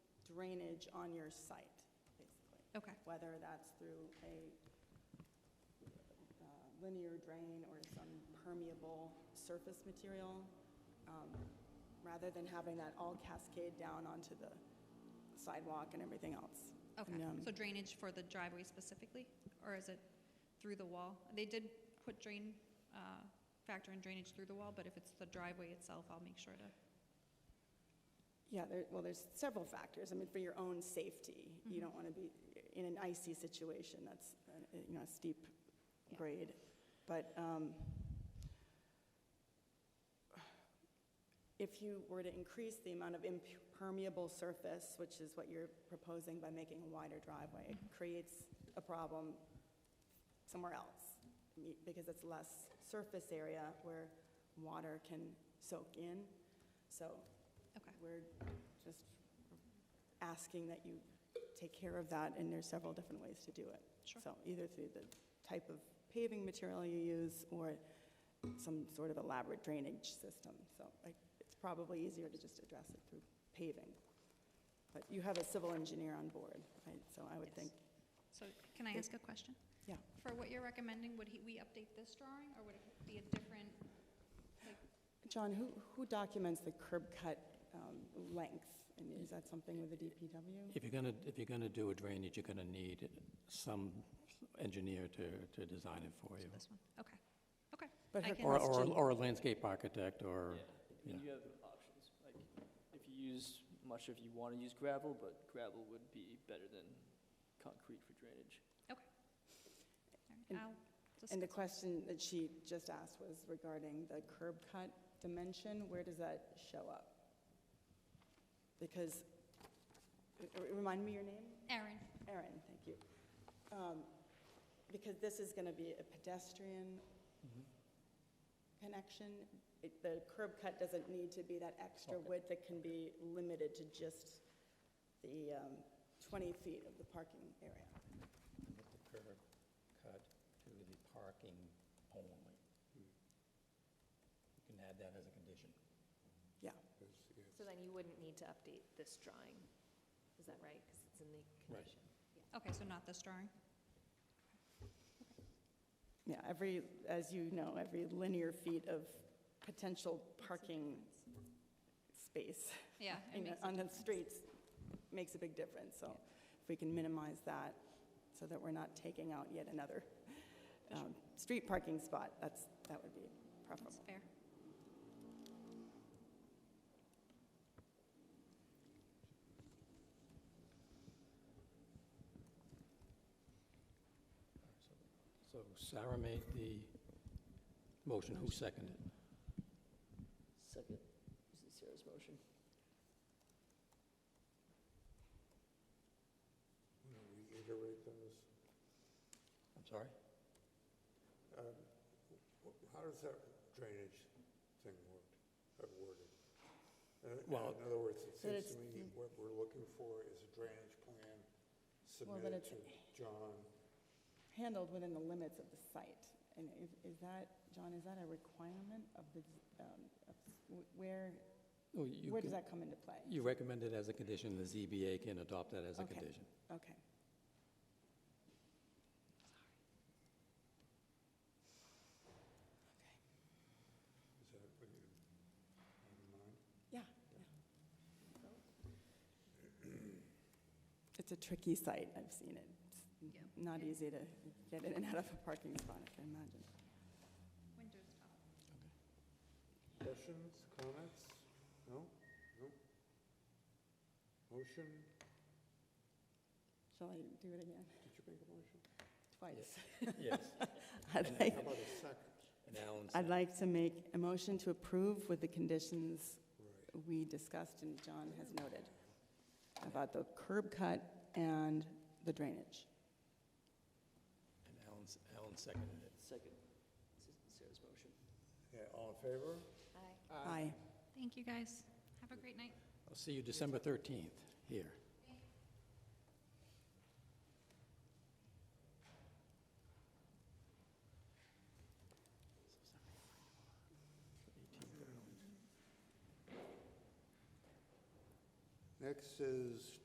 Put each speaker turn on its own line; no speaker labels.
drainage on your site, basically.
Okay.
Whether that's through a uh, linear drain or some permeable surface material, um, rather than having that all cascade down onto the sidewalk and everything else.
Okay,
And, um,
so drainage for the driveway specifically, or is it through the wall? They did put drain, uh, factor in drainage through the wall, but if it's the driveway itself, I'll make sure to,
Yeah, there, well, there's several factors. I mean, for your own safety, you don't want to be in an icy situation that's, uh, you know, a steep
Yeah.
grade. But um, if you were to increase the amount of impermeable surface, which is what you're proposing by making a wider driveway, it creates a problem somewhere else me- because it's less surface area where water can soak in. So
okay.
we're just asking that you take care of that, and there's several different ways to do it.
Sure.
So either through the type of paving material you use, or some sort of elaborate drainage system. So I- it's probably easier to just address it through paving. But you have a civil engineer on board, right? So I would
Yes.
think,
So can I
It-
ask a question?
yeah.
For what you're recommending, would he, we update this drawing, or would it be a different, like,
John, who, who documents the curb cut um, length? And is that something with the DPW?
If you're going to, if you're going to do a drainage, you're going to need some engineer to, to design it for you.
this one? Okay, okay.
But
I
her
can-
Or, or,
question-
or a landscape architect, or,
Yeah, and
yeah.
you have options, like, if you use, much if you wanna use gravel, but gravel would be better than concrete for drainage.
And-
I'll just-
And the question that she just asked was regarding the curb cut dimension, where does that show up? Because, r- remind me your name?
Aaron,
Erin, thank you. Um, Because this is going to be a pedestrian connection, It- the curb cut doesn't need to be that extra
Okay.
width, it can be limited to just the um, 20 feet of the parking area.
With the curb cut to the parking only. You can add that as a condition.
Yeah,
So then you wouldn't need to update this drawing, is that right? Because it's in the
Right.
condition.
okay, so not this drawing?
yeah, every, as you know, every linear feet of potential parking space
Yeah. it
in-
makes a
on the
difference.
streets makes a big difference, so if we can minimize that, so that we're not taking out yet another um, street parking spot, that's, that would be
That's
preferable.
fair.
So Sarah made the motion, who seconded?
Second, this is Sarah's motion.
reiterate those?
I'm sorry?
Um, wh- How does that drainage thing work, uh, worded? Uh,
Well-
In other words, it
So that
seems to
it's-
me what we're looking for is a drainage plan
Well, that
submitted to
it's-
John.
Handled within the limits of the site, and is- is that, John, is that a requirement of the, um, of wh- where,
Oh, you
where does
can-
that come into play?
You recommend it as a condition, the ZBA can adopt that as a
Okay.
condition.
Okay.
Is that what you have in mind?
Yeah, yeah. It's a tricky site, I've seen it. It's
Yeah.
Not easy to get in and out of a parking spot, I can imagine.
Windows up.
Questions, comments? No? No? Motion?
Shall I do it again?
Did you make a motion?
Twice.
Yes.
I'd like,
How about a second?
And Alan
I'd
seconded.
like to make a motion to approve with the conditions
Right.
we discussed and John has noted about the curb cut and the drainage.
And Alan, Alan seconded it.
Second, this is Sarah's motion.
Yeah, all in favor?
Aye.
Aye.
Thank you, guys. Have a great night.
I'll see you December 13th here.
Next is